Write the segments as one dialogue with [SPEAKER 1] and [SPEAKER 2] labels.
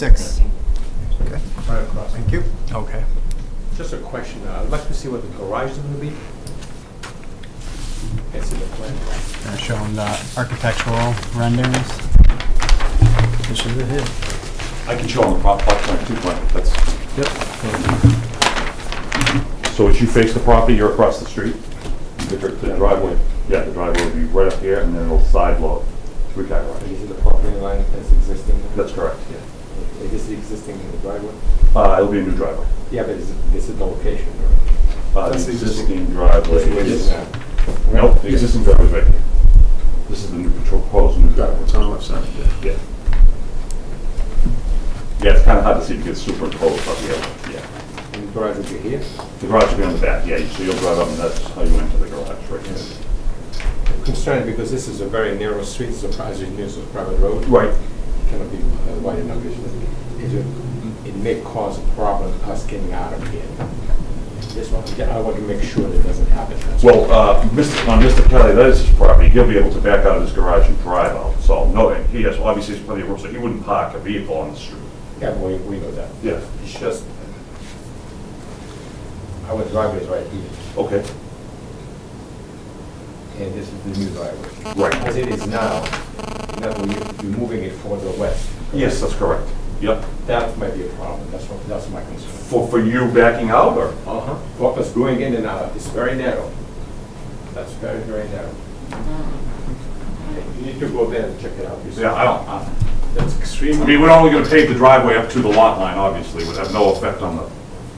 [SPEAKER 1] Six.
[SPEAKER 2] Okay,
[SPEAKER 3] Right across.
[SPEAKER 1] Thank you.
[SPEAKER 2] okay.
[SPEAKER 3] Just a question, uh, I'd like to see what the garage is gonna be. I see the plan.
[SPEAKER 2] They're showing the architectural renderings.
[SPEAKER 4] I can show on the prop, plot plan, two plan, that's. Yep. So as you face the property, you're across the street, the dr- the driveway, yeah, the driveway will be right up here, and then it'll side load, three car
[SPEAKER 3] And
[SPEAKER 4] garage.
[SPEAKER 3] This is the property line that's existing? there?
[SPEAKER 4] That's correct.
[SPEAKER 3] Yeah. Is this existing in the driveway?
[SPEAKER 4] Uh, it'll be a new driveway.
[SPEAKER 3] Yeah, but is, this is the location, right?
[SPEAKER 4] Uh,
[SPEAKER 1] That's
[SPEAKER 4] the
[SPEAKER 1] the
[SPEAKER 4] existing driveway
[SPEAKER 3] This is
[SPEAKER 4] is,
[SPEAKER 3] now.
[SPEAKER 4] nope, the existing driveway right here. This is the new proposed new driveway.
[SPEAKER 5] It's on the left side, yeah.
[SPEAKER 4] Yeah. Yeah, it's kind of hard to see because it's superimposed up here, yeah.
[SPEAKER 3] And the garage will be here?
[SPEAKER 4] The garage will be on the back, yeah, so you'll drive up and that's how you enter the garage, right there.
[SPEAKER 3] Concerned because this is a very narrow street, it's a, as you know, it's a private road.
[SPEAKER 4] Right,
[SPEAKER 3] Cannot be uh, wide enough, it's just- it, will- it may cause a problem us getting out of here. Just want, yeah, I want to make sure that doesn't happen. That's all.
[SPEAKER 4] Well, uh, Mr. on Mr. Kelly, that is his property, he'll be able to back out of his garage and drive out, so, no, and he has, obviously, there's plenty of room, so he wouldn't park a vehicle on the street.
[SPEAKER 3] Yeah, we, we know that.
[SPEAKER 4] Yeah.
[SPEAKER 3] It's just, our driveway is right here,
[SPEAKER 4] Okay,
[SPEAKER 3] and this is the new driveway.
[SPEAKER 4] right.
[SPEAKER 3] As it is now, now we- we're moving it for the west.
[SPEAKER 4] Yes, that's correct. Yep.
[SPEAKER 3] That might be a problem, that's what, that's my concern.
[SPEAKER 4] For, for you backing out, or?
[SPEAKER 3] Uh-huh. For us going in and out, it's very narrow. That's very, very narrow. You need to go there and check it out. yourself.
[SPEAKER 4] Yeah, I don't, I-
[SPEAKER 3] That's
[SPEAKER 4] I
[SPEAKER 3] extremely,
[SPEAKER 4] mean, we're only gonna pave the driveway up to the lot line, obviously, would have no effect on the,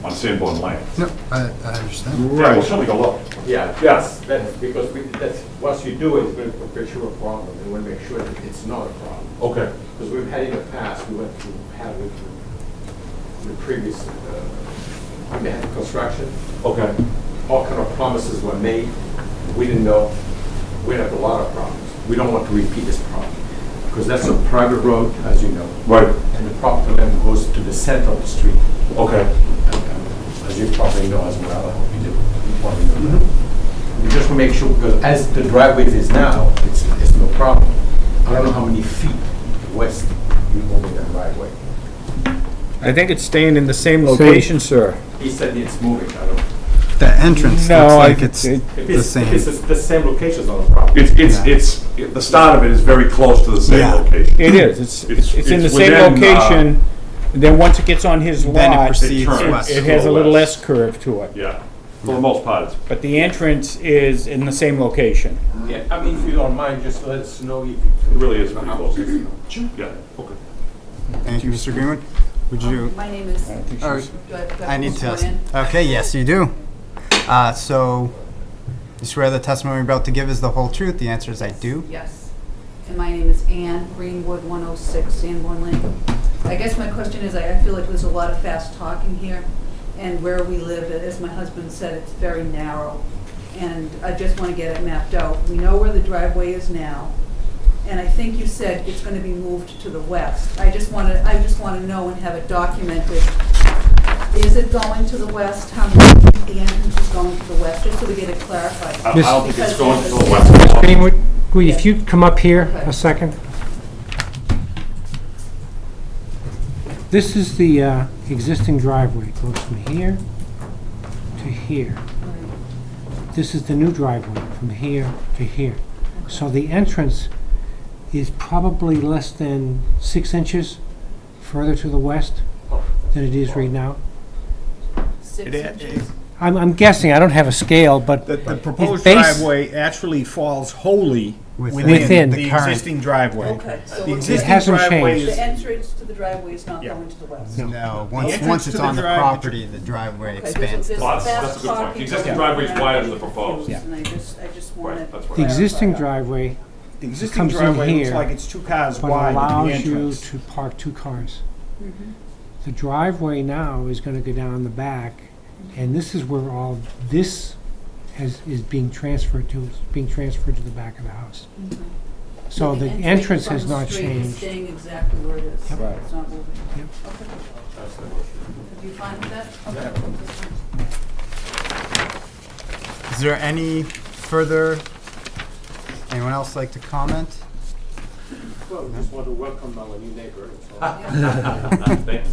[SPEAKER 4] on Sanborn Lane.
[SPEAKER 2] No, I, I understand.
[SPEAKER 4] Yeah, we'll certainly go low.
[SPEAKER 3] yeah,
[SPEAKER 4] Yes.
[SPEAKER 3] yes, that's because we, that's, once you do it, it's going to perpetuate a problem, and we want to make sure that it's not a problem.
[SPEAKER 4] Okay.
[SPEAKER 3] Because we've had in the past, we went through, had with the previous, uh, when they had construction,
[SPEAKER 4] Okay.
[SPEAKER 3] all kind of promises were made. We didn't know. We had a lot of problems. We don't want to repeat this problem. Because that's a private road, as you know.
[SPEAKER 4] Right,
[SPEAKER 3] And the property line goes to the center of the street,
[SPEAKER 4] okay.
[SPEAKER 3] as you probably know as well. I hope you do. You probably know that. We just want to make sure, because as the driveway is now, it's, it's no problem. I don't know how many feet west you move in that driveway.
[SPEAKER 6] I think it's staying in the same location, sir.
[SPEAKER 3] He said it's moving, I don't.
[SPEAKER 2] The entrance
[SPEAKER 6] No,
[SPEAKER 2] looks
[SPEAKER 6] I-
[SPEAKER 2] like it's
[SPEAKER 6] it-
[SPEAKER 3] If
[SPEAKER 2] the
[SPEAKER 3] it's, if it's
[SPEAKER 2] same.
[SPEAKER 3] the same location, it's not a problem.
[SPEAKER 4] It's, it's, it's, it- the start of it is very close to the same
[SPEAKER 2] Yeah.
[SPEAKER 4] location.
[SPEAKER 6] It is, it's,
[SPEAKER 4] It's-
[SPEAKER 6] it's it's in the
[SPEAKER 4] it's
[SPEAKER 6] same
[SPEAKER 4] within, uh,
[SPEAKER 6] location, then once it gets on his
[SPEAKER 2] Then it
[SPEAKER 6] lot, it
[SPEAKER 2] proceeds
[SPEAKER 4] turns.
[SPEAKER 2] west.
[SPEAKER 6] it has a
[SPEAKER 4] Go
[SPEAKER 6] little
[SPEAKER 4] west.
[SPEAKER 6] S curve to it.
[SPEAKER 4] Yeah, for the most part, it's
[SPEAKER 6] But the entrance is in the same location.
[SPEAKER 3] Yeah, I mean, if you don't mind, just let us know if you.
[SPEAKER 4] It really is pretty close. Yeah, okay.
[SPEAKER 2] Thank you, Mr. Greenwood. Would you,
[SPEAKER 7] My name is,
[SPEAKER 6] I think
[SPEAKER 2] All
[SPEAKER 6] she's-
[SPEAKER 7] do I- do I
[SPEAKER 2] I
[SPEAKER 7] have to
[SPEAKER 2] need
[SPEAKER 7] swear
[SPEAKER 2] to,
[SPEAKER 7] in?
[SPEAKER 2] okay, yes, you do. Uh, so, you swear the testimony you're about to give is the whole truth? The answer is I do.
[SPEAKER 7] Yes. And my name is Ann Greenwood, 106 Sanborn Lane. I guess my question is, I I feel like there's a lot of fast talking here, and where we live, as my husband said, it's very narrow. And I just want to get it mapped out. We know where the driveway is now, and I think you said it's going to be moved to the west. I just want to, I just want to know and have it documented. Is it going to the west? How many, feet the entrance is going to the west, just so we get it
[SPEAKER 4] I I
[SPEAKER 7] clarified.
[SPEAKER 4] don't think it's going to the
[SPEAKER 8] Ms.
[SPEAKER 4] west.
[SPEAKER 8] Greenwood, would if you come up here a second? This is the uh, existing driveway, It goes from here to here. This is the new driveway, from here to here. So the entrance is probably less than six inches further to the west than it is right now.
[SPEAKER 7] Six inches.
[SPEAKER 8] I'm I'm guessing, I don't have a scale, but
[SPEAKER 1] The, the
[SPEAKER 8] It's
[SPEAKER 1] proposed
[SPEAKER 8] base-
[SPEAKER 1] driveway actually falls wholly
[SPEAKER 2] Within
[SPEAKER 1] within
[SPEAKER 8] Within.
[SPEAKER 1] the
[SPEAKER 2] the current-
[SPEAKER 1] existing driveway.
[SPEAKER 7] Okay, so
[SPEAKER 1] The
[SPEAKER 7] it
[SPEAKER 1] existing
[SPEAKER 8] hasn't
[SPEAKER 1] driveway
[SPEAKER 8] changed.
[SPEAKER 7] The
[SPEAKER 1] is,
[SPEAKER 7] entrance to the driveway is not going to the west.
[SPEAKER 2] No, once,
[SPEAKER 1] entrance
[SPEAKER 2] once
[SPEAKER 1] to
[SPEAKER 2] it's
[SPEAKER 1] the
[SPEAKER 2] on the
[SPEAKER 1] drive-
[SPEAKER 2] property, the driveway
[SPEAKER 7] Okay, there's a-
[SPEAKER 2] expands.
[SPEAKER 7] there's
[SPEAKER 4] Well, that's-
[SPEAKER 7] fast
[SPEAKER 4] that's a good point. The
[SPEAKER 7] talking
[SPEAKER 4] existing
[SPEAKER 7] going
[SPEAKER 4] driveway is
[SPEAKER 7] on.
[SPEAKER 4] wider than the proposed.
[SPEAKER 7] And I just, I just want
[SPEAKER 4] Right,
[SPEAKER 7] to.
[SPEAKER 4] that's right.
[SPEAKER 8] the existing driveway
[SPEAKER 1] the existing
[SPEAKER 8] comes in
[SPEAKER 1] driveway looks
[SPEAKER 8] here,
[SPEAKER 1] like it's two cars
[SPEAKER 8] but
[SPEAKER 1] wide at the
[SPEAKER 8] allows you
[SPEAKER 1] entrance.
[SPEAKER 8] to park two cars. The driveway now is gonna go down the back, and this is where all this has, is being transferred to, is being transferred to the back of the house. So the entrance has
[SPEAKER 7] from the
[SPEAKER 8] not
[SPEAKER 7] street is
[SPEAKER 8] changed.
[SPEAKER 7] Staying exactly where it is.
[SPEAKER 8] Yep.
[SPEAKER 3] Right.
[SPEAKER 7] It's not moving.
[SPEAKER 8] Yep.
[SPEAKER 7] Okay. Are you fine with that? Okay. That's fine.
[SPEAKER 2] Is there any further, anyone else like to comment?
[SPEAKER 3] Well, we just want to welcome our new neighbor.
[SPEAKER 9] Yeah.
[SPEAKER 7] Thank you.